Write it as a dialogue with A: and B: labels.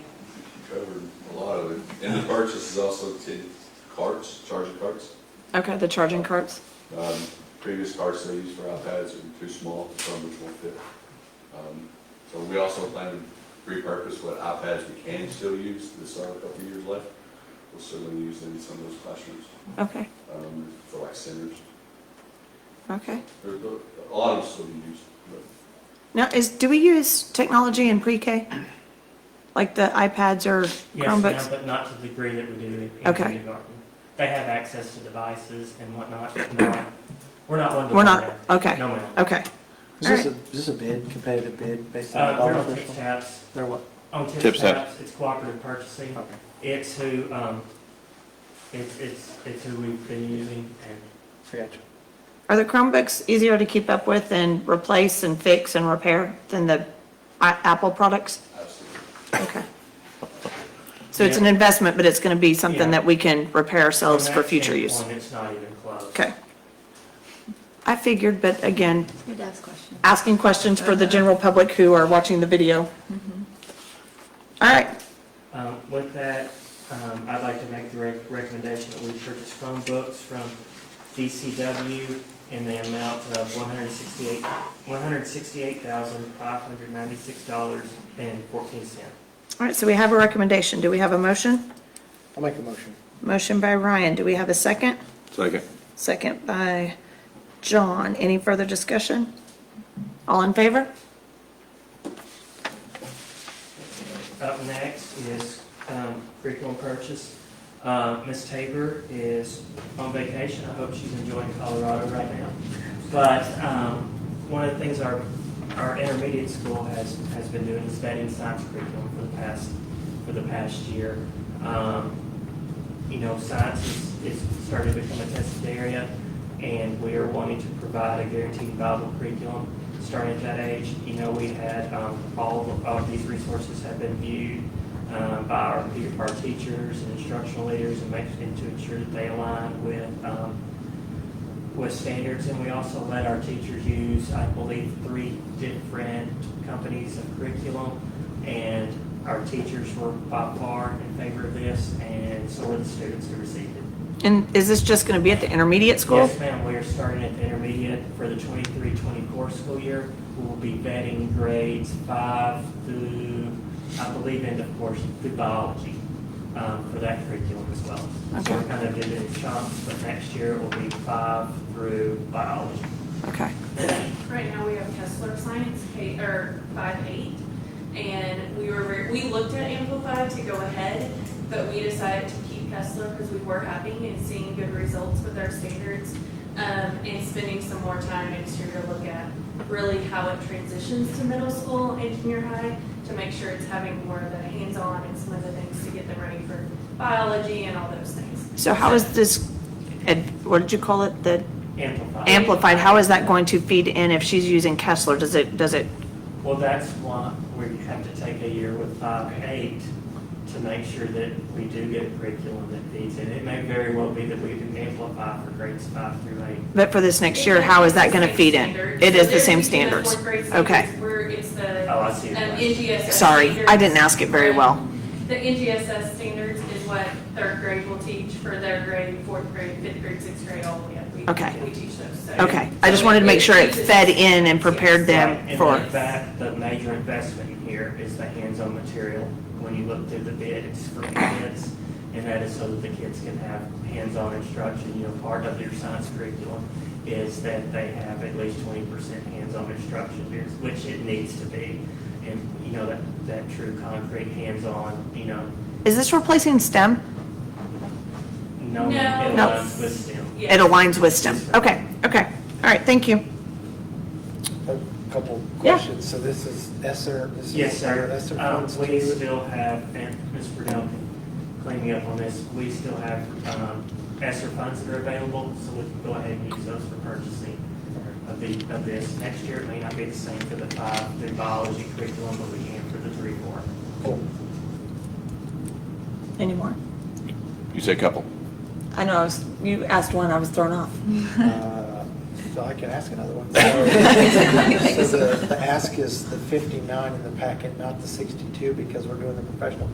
A: purchase is also to carts, charging carts.
B: Okay, the
C: Oh.
B: charging carts.
A: Um, Previous carts they used for iPads are too small, some which won't fit. Um, So we also plan to repurpose what iPads we can still use, there's still a couple of years left. We'll certainly use them in some of those classrooms,
B: Okay,
A: um, for like centers.
B: okay.
A: There- there- A lot of them still be used, but
B: Now, is, do we use technology in pre-K? Like the iPads or
C: Yes,
B: Chromebooks?
C: ma'am, but not to the degree that we do in
B: Okay.
C: kindergarten. They have access to devices and whatnot. but no, We're not one to.
B: We're
C: one
B: not,
C: that.
B: okay,
C: No, ma'am.
B: okay.
D: Is this a, is this a bid, competitive bid based on
C: Uh,
D: the
C: We're
D: dollar
C: on tips
D: official?
C: taps.
D: They're what?
C: On tips
E: Tips taps.
C: taps, it's cooperative purchasing.
D: Okay.
C: It's who, um, it's, it's, it's who we've been using and
D: I got you.
B: Are the Chromebooks easier to keep up with and replace and fix and repair than the I- Apple products?
A: absolutely.
B: Okay. So it's an investment, but it's going to be something that we can repair ourselves
C: from
B: for
C: that
B: future use.
C: standpoint, It's not even close.
B: Okay. I figured, but again,
F: Your dad's question.
B: asking questions for the general public who are watching the video.
C: Mm-hmm.
B: All right,
C: Um, With that, um, I'd like to make the rec- recommendation that we purchase Chromebooks from DCW in the amount of one hundred sixty-eight, one hundred sixty-eight thousand, five hundred ninety-six dollars and fourteen cent.
B: all right, so we have a recommendation. Do we have a motion?
D: I'll make a motion.
B: Motion by Ryan. Do we have a second?
E: Second.
B: Second by John. Any further discussion? All in favor?
C: Up next is um, curriculum purchase. Uh, Ms. Tabor is on vacation. I hope she's enjoying Colorado right now. But um, one of the things our, our intermediate school has, has been doing is vetting science curriculum for the past, for the past year. Um, You know, science is, is starting to become a tested area, and we are wanting to provide a guaranteed viable curriculum starting at that age, you know, we had, um, all, of- all of these resources have been viewed, um, by our, pe- our teachers and instructional leaders and making, to ensure that they align with, um, with standards, and we also let our teachers use, I believe, three different companies of curriculum, and our teachers were by far in favor of this, and so were the students who received it.
B: And is this just going to be at the intermediate school?
C: Yes, ma'am, we are starting at the intermediate for the 23-24 school year. We will be vetting grades five through, I believe, end of course, through biology um, for that curriculum as well. So we're
B: Okay.
C: kind of doing it in chunks, but next year it will be five through biology.
B: Okay.
G: Right now, we have Kessler Science, K, or five eight, and we were, ver- we looked at Amplify to go ahead, but we decided to keep Kessler because we were having and seeing good results with our standards, um, and spending some more time next year to look at really how it transitions to middle school and junior high, to make sure it's having more of the hands-on and some of the things to get them ready for biology and all those things.
B: So how is this, ed- what did you call it, the
C: Amplify.
B: amplified? How is that going to feed in if she's using Kessler? Does it, does it,
C: Well, that's why we have to take a year with five eight to make sure that we do get a curriculum that feeds in. It may very well be that we can amplify for grades five through eight.
B: but for this next year, how is that going to feed in? It is the same standards. Okay.
G: Where it's the
C: Oh, I see.
G: Um, NGSS.
B: Sorry, I didn't ask it very well.
G: standards- The NGSS standards is what third grade will teach for their grade, fourth grade, fifth grade, sixth grade, all the way up. We-
B: Okay.
G: We teach those. so-
B: Okay. I just wanted to make sure it fed in and prepared them
C: Right,
B: for,
C: And in fact, the major investment here is the hands-on material. When you look through the bid, it's for kids, and that is so that the kids can have hands-on instruction. You know, part of your science curriculum is that they have at least twenty percent hands-on instruction, which it needs to be. And, you know, that, that true concrete hands-on, you know,
B: is this replacing STEM?
C: no, it
G: No.
B: No.
C: aligns with STEM.
G: Yeah.
B: It aligns with STEM. Okay, okay. All right, thank you.
D: A couple
B: Yeah.
D: questions. So this is Esser, this is.
C: Yes, sir.
D: Esser
C: Um,
D: funds
C: we
D: to-
C: still have, and Ms. Brunel can clean me up on this, we still have, um, ESSER funds that are available, so we can go ahead and use those for purchasing of the, of this. Next year, it may not be the same for the five, the biology curriculum, but we can for the three, four.
D: Cool.
B: Any more?
E: You say couple.
B: I know, I was- you asked one, I was thrown off.
D: Uh, So I can ask another one. So the, the ask is the 59 in the packet, not the 62, because we're doing the professional